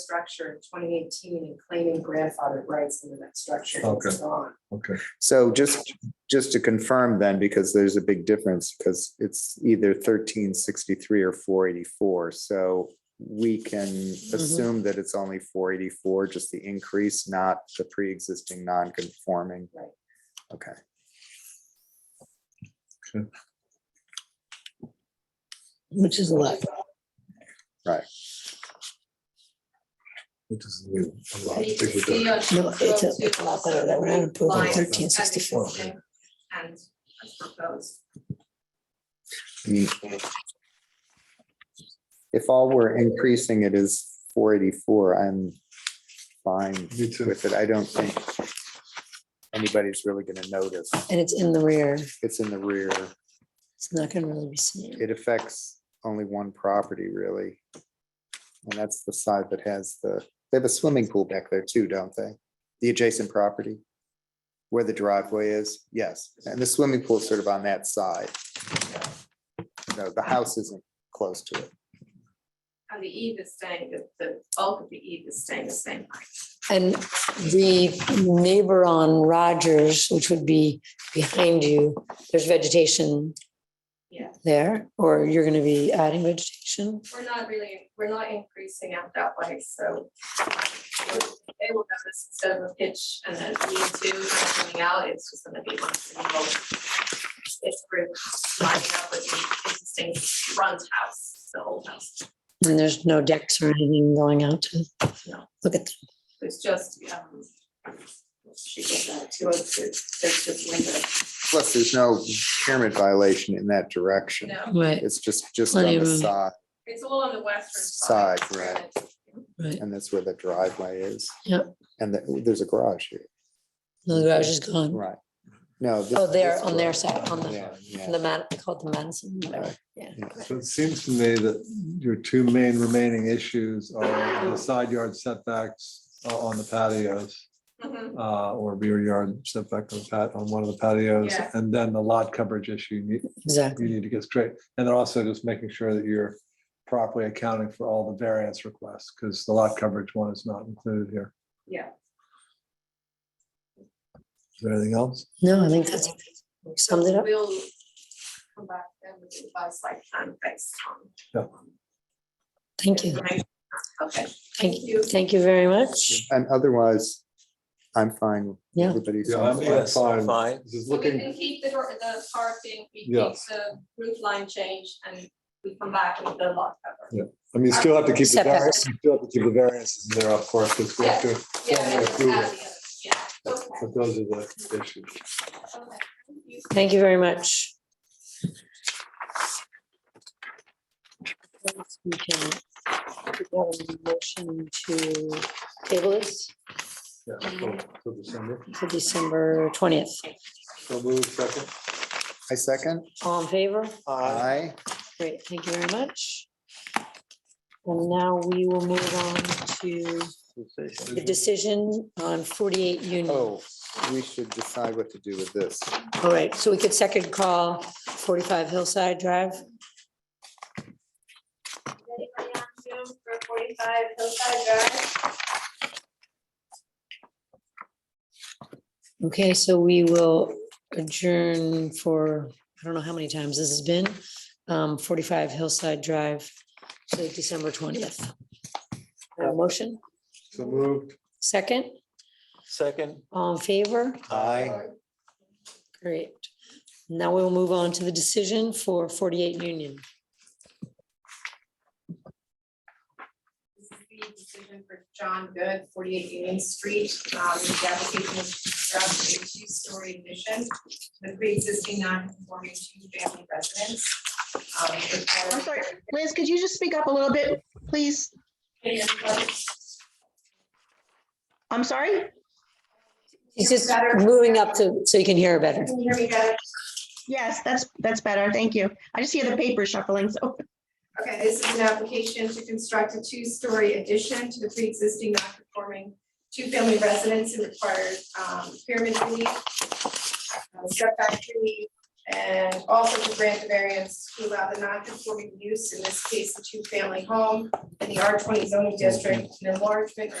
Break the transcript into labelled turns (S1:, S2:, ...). S1: structure in twenty eighteen and claiming grandfathered rights into that structure.
S2: Okay.
S1: It's gone.
S2: Okay,
S3: So just, just to confirm then, because there's a big difference, because it's either thirteen sixty-three or four eighty-four, so we can assume that it's only four eighty-four, just the increase, not the pre-existing non-conforming.
S1: Right.
S3: Okay,
S4: which is a lot.
S2: which is a lot.
S1: And you can
S2: bigger
S1: see
S2: than-
S1: on
S4: No, it's a
S1: 202
S4: lot better than we're not approving
S1: lines as
S4: 1364.
S1: existing And as proposed.
S3: if all we're increasing it is four eighty-four, I'm fine
S2: Me too.
S3: with it, I don't think anybody's really gonna notice,
S4: And it's in the rear.
S3: it's in the rear,
S4: It's not gonna really be seen.
S3: it affects only one property really. And that's the side that has the, they have a swimming pool back there too, don't they? The adjacent property? Where the driveway is, yes, and the swimming pool is sort of on that side. No, the house isn't close to it.
S1: And the eve is staying, the, the bulk of the eve is staying the same height.
S4: And the neighbor on Rogers, which would be behind you, there's vegetation
S1: Yeah,
S4: there, or you're gonna be adding vegetation?
S1: we're not really, we're not increasing out that way, so. They will notice instead of a pitch and then E two coming out, it's just gonna be one single. It's group lining up with the existing front house, the old house.
S4: And there's no decks or anything going out to?
S1: No.
S4: Look at, that.
S1: It's just, um. She gets that two oh two, there's just window,
S3: Plus, there's no pyramid violation in that
S1: you
S3: direction.
S1: know,
S4: right,
S3: It's just, just
S4: Plenty
S3: on
S4: of
S3: the
S4: room.
S3: side,
S1: it's all on the western side.
S3: Side, right.
S4: right.
S3: and that's where the driveway is.
S4: Yep.
S3: And the- there's a garage here,
S4: No, The garage is gone.
S3: right? No. this-
S4: Oh, there,
S3: this
S4: on their
S3: garage.
S4: side, on the,
S3: Yeah, yeah.
S4: the man, they call it the Madison, whatever.
S2: So it seems to me that your two main remaining issues are the side yard setbacks uh, on the patios
S1: Mhm.
S2: uh, or rear yard setback on pat, on one of the patios.
S1: Yeah.
S2: And then the lot coverage issue you need,
S4: Exactly.
S2: you need to get straight. And then also just making sure that you're properly accounting for all the variance requests because the lot coverage one is not included here.
S1: Yeah.
S2: Is there anything else?
S4: No, I think that's, summed it up.
S1: We'll come back then with the revised site plan based
S2: Yeah.
S1: on.
S4: thank you.
S1: Okay,
S4: Thank you, thank you very much.
S3: And otherwise, I'm fine.
S4: Yeah.
S3: Everybody's.
S5: Yes, fine.
S2: This is
S1: so we can keep the, door- the parking, we keep
S2: Yes.
S1: the roof line change and we come back with the lot cover.
S2: I mean, you still have to keep the, var- you
S4: Setbacks.
S2: still have to keep the variances there, of course, because we have to,
S1: Yeah, and then
S2: approval.
S1: add the other- yeah, okay,
S2: but those are the issues.
S1: okay. Thank you.
S4: Thank you very much. We can we have a motion to table this
S2: Yeah, so- so December.
S4: to December twentieth.
S2: So move second.
S3: I second.
S4: All in favor?
S3: Aye.
S4: Great, thank you very much. And now we will move on to the decision on forty-eight Union. All
S3: Oh, we should decide what to do with this.
S4: right, so we could second call forty-five Hillside Drive.
S1: Anybody on Zoom for forty-five Hillside Drive?
S4: Okay, so we will adjourn for, I don't know how many times this has been, um, forty-five Hillside Drive to December twentieth. Motion,
S2: So moved.
S4: second,
S5: Second.
S4: all in favor?
S3: Aye.
S4: Great. Now we will move on to the decision for forty-eight Union.
S1: This is the decision for John Good, forty-eight Union Street, um, the application is to construct a two-story addition with pre-existing non-conforming two-family residence. Um, required-
S6: I'm sorry. Liz, could you just speak up a little bit, please? I'm sorry?
S4: He's just moving up to, so you can hear better.
S1: Can you hear me better?
S6: Yes, that's, that's better. Thank you. I just hear the paper shuffling, so.
S1: Okay, this is an application to construct a two-story addition to the pre-existing non-conforming two-family residence and requires um, pyramid relief, uh, setback relief, And also to grant the variance to allow the non-conforming use, in this case, the two-family home in the R twenty zoning district, an enlargement or